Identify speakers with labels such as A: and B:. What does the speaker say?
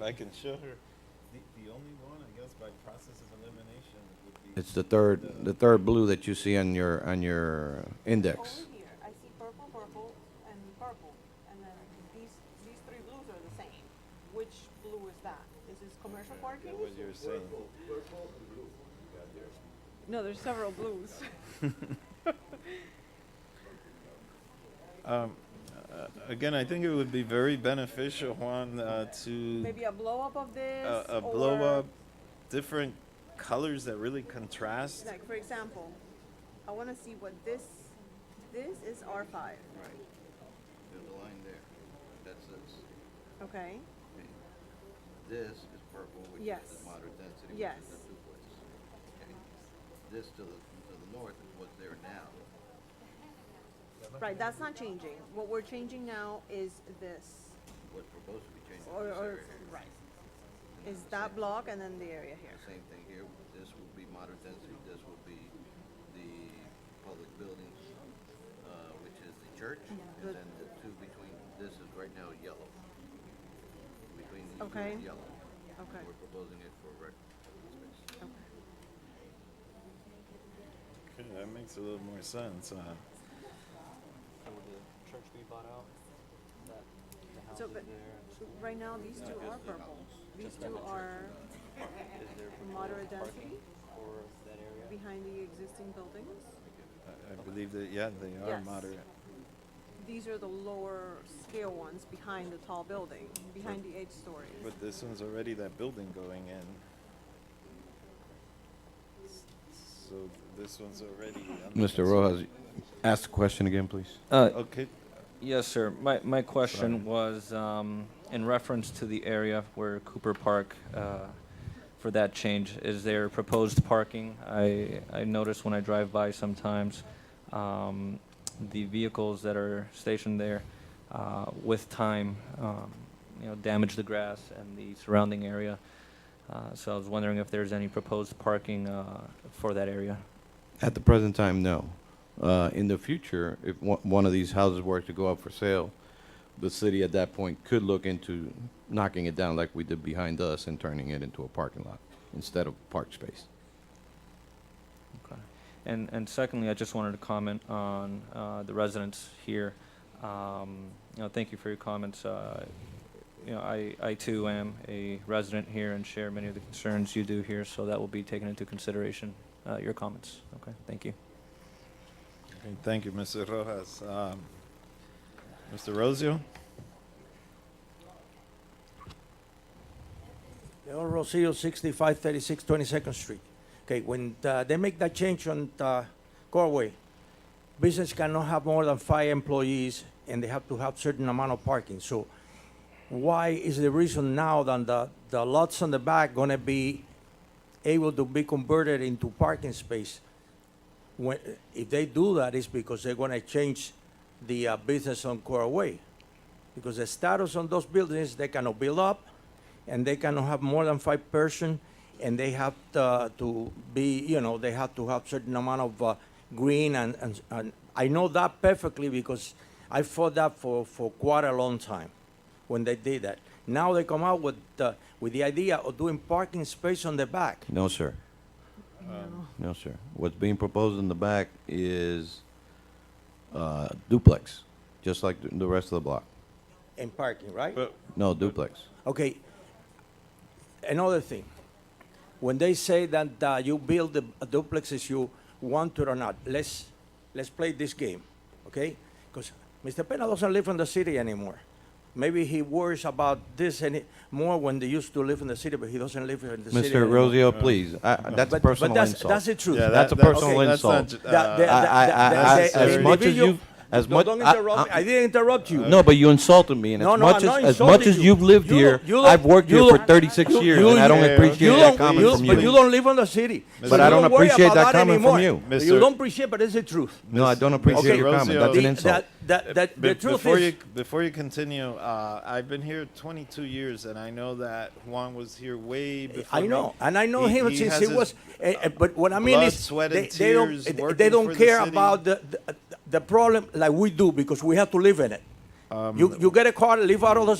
A: making sure.
B: The, the only one, I guess, by process of elimination would be.
C: It's the third, the third blue that you see on your, on your index.
D: Over here, I see purple, purple, and purple, and then these, these three blues are the same. Which blue is that? Is this commercial
E: Uh,
D: parking?
A: What you're saying.
D: No, there's several blues.
A: Uh, Again, I think it would be very beneficial, Juan, uh, to,
D: Maybe a blow up of this?
A: uh, a blow
D: or-
A: up, different colors that really contrast.
D: Like, for example, I wanna see what this, this is R five,
E: Right. There's a line there. That's this.
D: okay?
E: Okay. This is purple, which is
D: Yes.
E: the moderate density, which
D: Yes.
E: is the duplex. Okay. This to the, to the north is what's there now.
D: Right, that's not changing. What we're changing now is this,
E: What's proposed to be changed
D: or,
E: in this
D: or,
E: area.
D: right,
E: And
D: is
E: the
D: that
E: same-
D: block and then the area here.
E: The same thing here. This will be moderate density. This will be the public buildings, uh, which is the church.
D: the-
E: And then the two between, this is right now yellow. Between these two
D: Okay.
E: is yellow.
D: Okay,
E: We're proposing it for rec space.
D: okay.
A: Okay, That makes a little more sense, uh, huh?
F: So would the church be bought out? That the house
D: So,
F: is
D: but-
F: there and school
D: Right now, these two are purple. These two are
F: is there for
D: moderate
F: parking
D: density
F: for that area?
D: behind the existing buildings.
A: I- I believe that, yeah, they are
D: Yes.
A: moderate.
D: These are the lower scale ones behind the tall building, behind the eight stories.
A: But this one's already that building going in. S- So th- this one's already. under
C: Mr.
A: construction.
C: Rojas, ask the question again, please.
G: Uh,
A: Okay,
G: yes, sir. My, my question was, um, in reference to the area where Cooper Park, uh, for that change, is there proposed parking? I, I notice when I drive by sometimes, um, the vehicles that are stationed there, uh, with time, um, you know, damage the grass and the surrounding area. Uh, so I was wondering if there's any proposed parking, uh, for that area.
C: At the present time, no. Uh, in the future, if one, one of these houses were to go up for sale, the city at that point could look into knocking it down like we did behind us and turning it into a parking lot instead of park space.
G: Okay. And, and secondly, I just wanted to comment on uh, the residents here. Um, You know, thank you for your comments. Uh, You know, I, I too am a resident here and share many of the concerns you do here, so that will be taken into consideration, uh, your comments. Okay, thank you.
A: Okay, thank you, Mr. Rojas. Um, Mr. Rosio?
H: Leon Rosillo, 6536 22nd Street. Okay, when uh, they make that change on uh, Corway, business cannot have more than five employees, and they have to have certain amount of parking. So why is the reason now that the, the lots on the back going to be able to be converted into parking space? When, if they do that, it's because they're going to change the uh, business on Corway. Because the status on those buildings, they cannot build up, and they cannot have more than five person, and they have to, to be, you know, they have to have certain amount of uh, green and, and, and I know that perfectly because I fought that for, for quite a long time when they did that. Now they come out with, uh, with the idea of doing parking space on the back.
C: No, sir. Um, No, sir. What's being proposed in the back is uh, duplex, just like the- the rest of the block.
H: And parking, right?
A: But
C: No, duplex.
H: Okay. Another thing, when they say that uh, you build the duplexes, you want to or not. Let's let's play this game, okay? Because Mr. Pena doesn't live in the city anymore. Maybe he worries about this and it more when they used to live in the city, but he doesn't live in the city.
C: Mr.
H: anymore.
C: Rosio, please, I- I- that's a
H: but,
C: personal
H: but that's
C: insult.
H: that's the truth.
A: Yeah,
C: That's a
A: that-
C: personal
A: okay, that's not
C: insult.
A: ju-
H: That-
A: uh,
H: that-
C: I- I- I-
H: that-
C: as-
H: that-
C: as
H: the
C: much as
H: individual-
C: you- as
H: No,
C: much-
H: don't
C: I-
H: interrupt me.
C: I-
H: I didn't interrupt you.
C: No, but you insulted me, and
H: No,
C: as
H: no,
C: much
H: I'm not
C: as, as
H: insulting
C: much as
H: you.
C: you've lived
H: You
C: here,
H: don't- you
C: I've
H: don't-
C: worked
H: you
C: here for
H: don't-
C: 36
H: you-
C: years,
H: you
C: and I don't
H: don't-
C: appreciate
H: you
C: that
H: don't-
C: comment
H: you-
C: from
H: But you
C: you.
H: don't live on the city.
C: But
H: you
C: I don't
H: worry
C: appreciate
H: about
C: that comment from
H: anymore.
C: you.
H: You
A: Mister-
H: don't appreciate, but it's the truth.
C: No, I don't appreciate
A: Okay,
C: your
A: Rosio-
C: comment. That's an
A: The-
C: insult.
H: That, that, that, the
A: Be-
H: truth
A: before you
H: is,
A: before you continue, uh, I've been here 22 years, and I know that Juan was here way before.
H: I
A: me.
H: know, and I know
A: He-
H: him
A: he
H: since
A: has
H: he
A: his-
H: was. eh, eh, but what I mean
A: blood,
H: is,
A: sweat,
H: they,
A: and
H: they don't
A: tears
H: eh, they,
A: working
H: don't
A: for the
H: care
A: city.
H: about the,
C: Um,
H: the the problem like we do because we have to live in it. you you get a car, live out of the